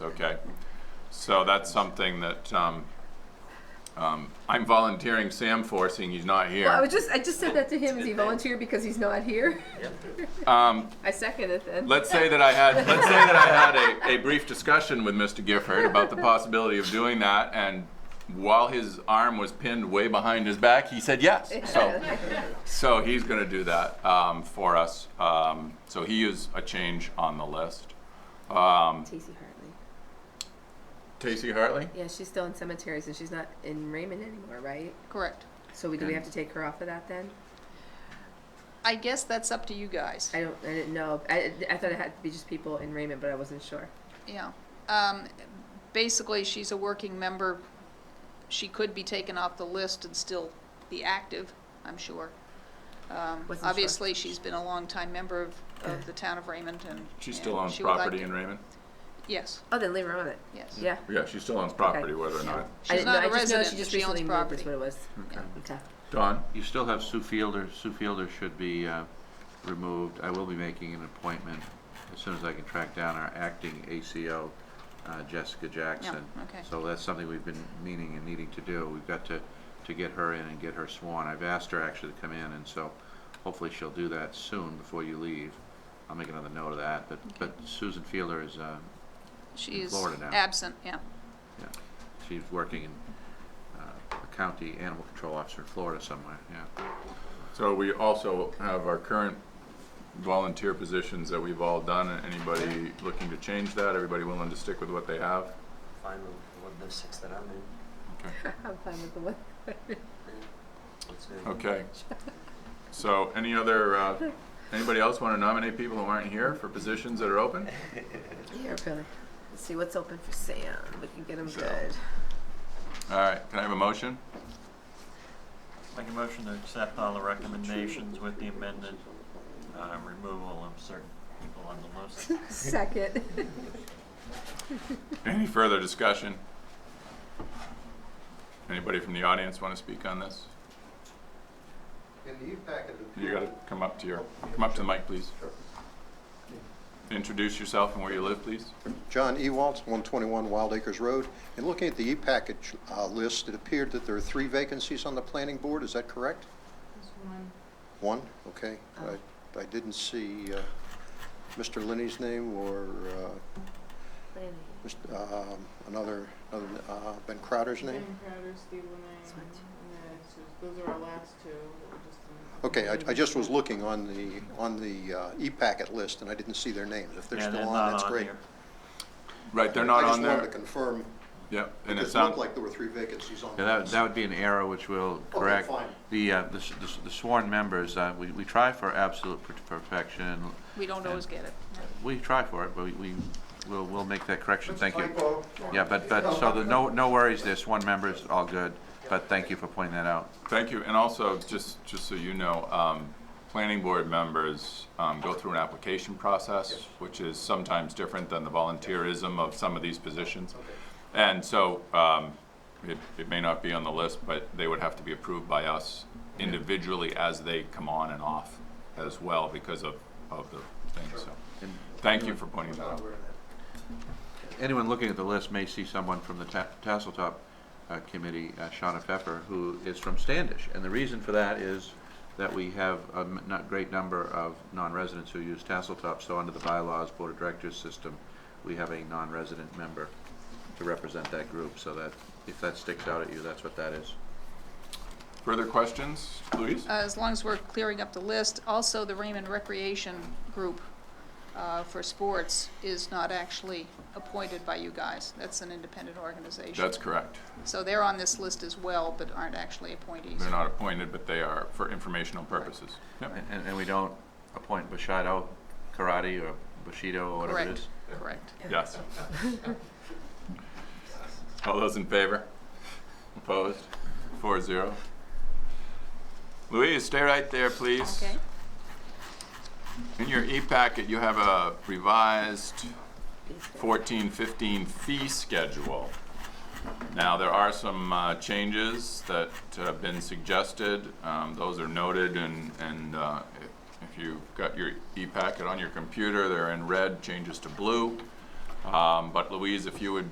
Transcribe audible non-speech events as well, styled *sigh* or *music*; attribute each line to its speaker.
Speaker 1: Okay, so that's something that um, um, I'm volunteering Sam for, seeing he's not
Speaker 2: Well, I
Speaker 1: here.
Speaker 2: was just, I just said that to him as he volunteered because he's not here.
Speaker 1: Um,
Speaker 2: I second it *laughs* then.
Speaker 1: Let's say that I had, let's say that I had a, a brief discussion with Mr. Gifford about the possibility of doing that, and while his arm was pinned way behind his back, he said yes. So, um, so he's gonna do that um, for us. Um, So he is a change on the list. Um,
Speaker 2: Tacey Hartley.
Speaker 1: Tacey Hartley?
Speaker 2: Yeah, she's still in cemeteries and she's not in Raymond anymore, right?
Speaker 3: Correct.
Speaker 2: So we, do we have to take her off of that then?
Speaker 3: I guess that's up to you guys.
Speaker 2: I don't, I didn't know. I, I thought it had to be just people in Raymond, but I wasn't sure.
Speaker 3: Yeah. Um, basically, she's a working member. She could be taken off the list and still be active, I'm sure. Um,
Speaker 2: Wasn't sure.
Speaker 3: obviously, she's been a longtime member of, of the town of Raymond and.
Speaker 1: She
Speaker 3: and
Speaker 1: still owns
Speaker 3: she would like
Speaker 1: property
Speaker 3: to-
Speaker 1: in Raymond?
Speaker 3: Yes,
Speaker 2: Oh, then leave her on it.
Speaker 3: yes.
Speaker 2: Yeah.
Speaker 1: Yeah, she still owns property, whether or not.
Speaker 2: I
Speaker 3: She's
Speaker 2: didn't know.
Speaker 3: not a
Speaker 2: I just know
Speaker 3: resident,
Speaker 2: she
Speaker 3: but
Speaker 2: just
Speaker 3: she owns
Speaker 2: recently moved is
Speaker 3: property.
Speaker 2: what it was.
Speaker 3: Yeah.
Speaker 2: Okay.
Speaker 1: Dawn?
Speaker 4: You still have Sue Fielder. Sue Fielder should be uh, removed. I will be making an appointment as soon as I can track down our acting ACO, uh, Jessica Jackson.
Speaker 3: okay.
Speaker 4: So that's something we've been meaning and needing to do. We've got to, to get her in and get her sworn. I've asked her actually to come in, and so hopefully she'll do that soon before you leave. I'll make another note of that, but, but Susan Fielder is, uh,
Speaker 3: She is
Speaker 4: Florida now.
Speaker 3: absent, yeah.
Speaker 4: yeah, she's working in uh, a county animal control officer in Florida somewhere, yeah.
Speaker 1: So we also have our current volunteer positions that we've all done. Anybody looking to change that? Everybody willing to stick with what they have?
Speaker 5: fine with one of the six that I'm in.
Speaker 2: I'm fine with the one.
Speaker 5: It's good.
Speaker 1: Okay. So any other, uh, anybody else want to nominate people who aren't here for positions that are open?
Speaker 2: Yeah, really. Let's see what's open for Sam. We can get him
Speaker 1: So-
Speaker 2: good.
Speaker 1: *laughs* All right, can I have a motion?
Speaker 6: Make a motion to accept all the recommendations with the amended uh, removal of certain people on the list.
Speaker 2: Second.
Speaker 1: Any further discussion? Anybody from the audience want to speak on this?
Speaker 7: In the e-packet, the
Speaker 1: You got to come up to your, come up to the mic, please. Introduce yourself and where you live, please.
Speaker 7: John E. Ewalds, 121 Wild Acres Road. And looking at the e-package uh, list, it appeared that there are three vacancies on the planning board, is that correct? One. One, okay. I I didn't see uh, Mr. Linney's name or uh, Mr. um, another, another, uh, Ben Crowder's name?
Speaker 8: Ben Crowder, Steve Lemay,
Speaker 2: That's fine.
Speaker 8: and then it's just- those are our last two. that were just in-
Speaker 7: Okay, I I just was looking on the, on the uh, e-packet list, and I didn't see their names. If they're
Speaker 6: Yeah,
Speaker 7: still
Speaker 6: not
Speaker 7: on, that's great.
Speaker 6: here.
Speaker 1: Right, they're not on
Speaker 7: I just wanted
Speaker 1: there.
Speaker 7: to confirm,
Speaker 1: Yep, and it
Speaker 7: because it looked
Speaker 1: sounds,
Speaker 7: like there were three vacancies on the
Speaker 4: Yeah,
Speaker 7: list.
Speaker 4: that, that would be an error which will
Speaker 7: Oh,
Speaker 4: correct.
Speaker 7: fine.
Speaker 4: The, uh, the s- the s- the sworn members, uh, we, we try for absolute per- perfection.
Speaker 3: We don't always get it.
Speaker 4: We try for it, but we, we, we'll, we'll make that correction, thank you.
Speaker 7: Typo.
Speaker 4: Yeah, but, but, so the, no, no worries, there's one member, it's all good, but thank you for pointing that out.
Speaker 1: Thank you, and also, just, just so you know, um, planning board members, um, go through an application process, which is sometimes different than the volunteerism of some of these positions. And so, um, it, it may not be on the list, but they would have to be approved by us individually as they come on and off as well because of, of the thing, so.
Speaker 4: And
Speaker 1: Thank you for pointing that out.
Speaker 4: anyone looking at the list may see someone from the Ta- Tasseltop uh, Committee, uh, Shauna Pfeffer, who is from Standish. And the reason for that is that we have a m- not great number of non-residents who use Tasseltop. So under the bylaws, Board of Directors system, we have a non-resident member to represent that group. So that, if that sticks out at you, that's what that is.
Speaker 1: Further questions, Louise?
Speaker 3: Uh, as long as we're clearing up the list, also the Raymond Recreation Group uh, for sports is not actually appointed by you guys. That's an independent organization.
Speaker 1: That's correct.
Speaker 3: So they're on this list as well, but aren't actually appointees.
Speaker 1: They're not appointed, but they are for informational purposes. Yep.
Speaker 4: And- And, and we don't appoint Bushido Karate or Bushido or whatever it
Speaker 3: Correct,
Speaker 4: is.
Speaker 3: correct.
Speaker 1: Yes. All those in favor? Opposed? Four zero. Louise, stay right there, please.
Speaker 3: Okay,
Speaker 1: In your e-packet, you have a revised 14, 15 fee schedule. Now, there are some uh, changes that have been suggested. Um, Those are noted, and and uh, if if you've got your e-packet on your computer, they're in red, changes to blue. Um, Um, But Louise, if you would